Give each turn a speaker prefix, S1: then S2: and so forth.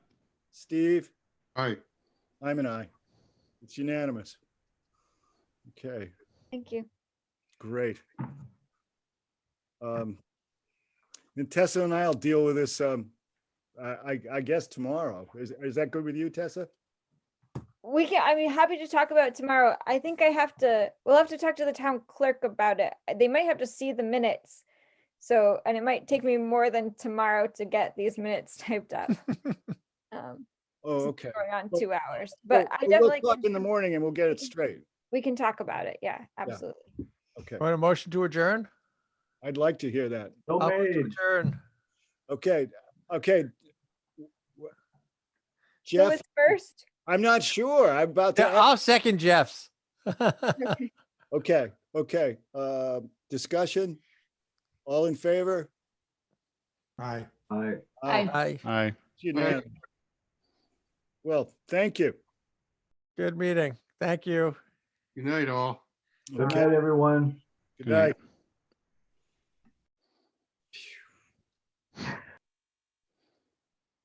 S1: Steve?
S2: Aye.
S1: I'm an aye. It's unanimous. Okay,
S3: Thank you.
S1: great. Um, And Tessa and I'll deal with this, um, I, I- I guess tomorrow. Is, is that good with you, Tessa?
S3: We can, I mean, happy to talk about it tomorrow. I think I have to, we'll have to talk to the town clerk about it. Uh, They might have to see the minutes. So, and it might take me more than tomorrow to get these minutes typed up. Um,
S1: Oh, okay.
S3: Going on
S1: Well,
S3: two hours, but I
S1: We'll- we'll
S3: definitely,
S1: talk
S3: can-
S1: In the morning and we'll get it straight.
S3: we can talk about it. Yeah, absolutely.
S1: Okay,
S4: Want a motion to adjourn?
S1: I'd like to hear that.
S5: So
S4: I'll move to
S5: made.
S4: Adjourn.
S1: Okay, okay.
S3: Who
S1: Jeff,
S3: was first?
S1: I'm not sure. I'm about to.
S4: Yeah, I'll second Jeff's.
S1: Okay, okay, uh, discussion? All in favor?
S6: Aye.
S5: Aye.
S1: Aye.
S4: Aye.
S2: Aye.
S1: It's unanimous. Well, thank you.
S4: Good meeting. Thank you.
S2: Good night, all.
S5: Good
S1: Okay,
S5: night, everyone.
S1: good night.